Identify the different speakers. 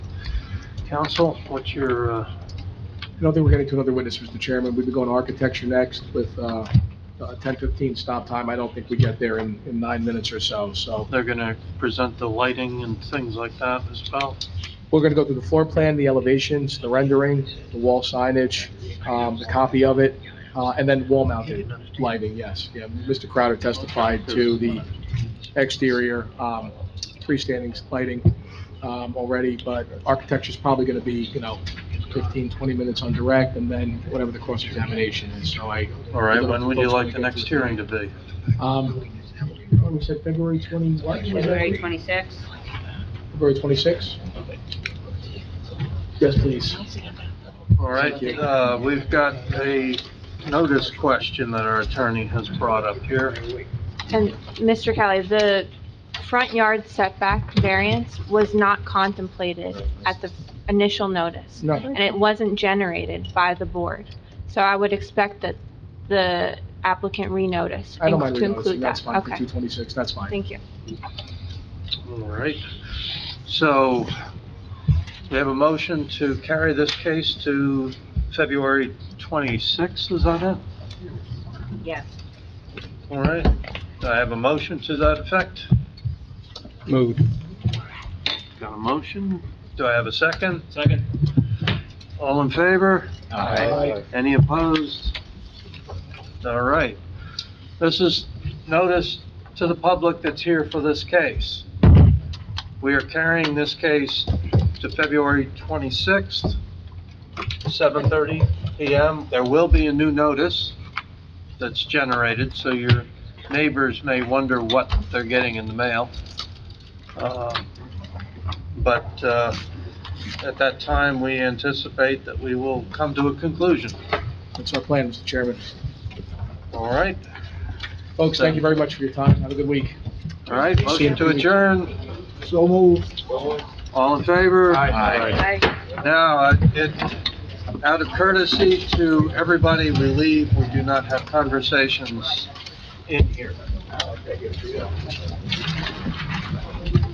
Speaker 1: Council, what's your, uh,
Speaker 2: I don't think we're getting to another witness, Mr. Chairman. We've been going to architecture next with uh, a 10:15 stop time. I don't think we get there in, in nine minutes or so, so.
Speaker 1: they're gonna present the lighting and things like that as well?
Speaker 2: We're gonna go through the floor plan, the elevations, the rendering, the wall signage, um, the copy of it, uh, and then wall mounted lighting, yes. Yeah, Mr. Crowder testified to the exterior, um, freestanding lighting, um, already, but architecture's probably gonna be, you know, 15, 20 minutes on direct, and then whatever the cross-examination is, so I.
Speaker 1: All right, when would you like the next hearing to be?
Speaker 2: Um, what we said, February 20, what?
Speaker 3: February 26th.
Speaker 2: February 26? Yes, please.
Speaker 1: All right,
Speaker 2: Thank you.
Speaker 1: uh, we've got a notice question that our attorney has brought up here.
Speaker 4: And Mr. Kelly, the front yard setback variance was not contemplated at the initial notice,
Speaker 2: No.
Speaker 4: and it wasn't generated by the board. So I would expect that the applicant renotice
Speaker 2: I don't mind
Speaker 4: to
Speaker 2: renoticing,
Speaker 4: include
Speaker 2: that's
Speaker 4: that.
Speaker 2: fine, for
Speaker 4: Okay,
Speaker 2: 226, that's fine.
Speaker 4: thank you.
Speaker 1: All right, so we have a motion to carry this case to February 26th, is that it?
Speaker 3: Yes.
Speaker 1: All right, Do I have a motion to that effect.
Speaker 2: Moved.
Speaker 1: Got a motion? Do I have a second? Second. All in favor?
Speaker 2: Aye.
Speaker 1: Any opposed? All right. This is notice to the public that's here for this case. We are carrying this case to February 26th, 7:30 PM. There will be a new notice that's generated, so your neighbors may wonder what they're getting in the mail. Uh, But uh, at that time, we anticipate that we will come to a conclusion.
Speaker 2: That's our plan, Mr. Chairman.
Speaker 1: All right,
Speaker 2: Folks, thank you very much for your time, have a good week.
Speaker 1: all right,
Speaker 2: See you.
Speaker 1: motion to adjourn,
Speaker 2: So moved.
Speaker 1: all in favor?
Speaker 2: Aye.
Speaker 3: Aye.
Speaker 1: Now, uh, it, out of courtesy to everybody, we leave, we do not have conversations in here.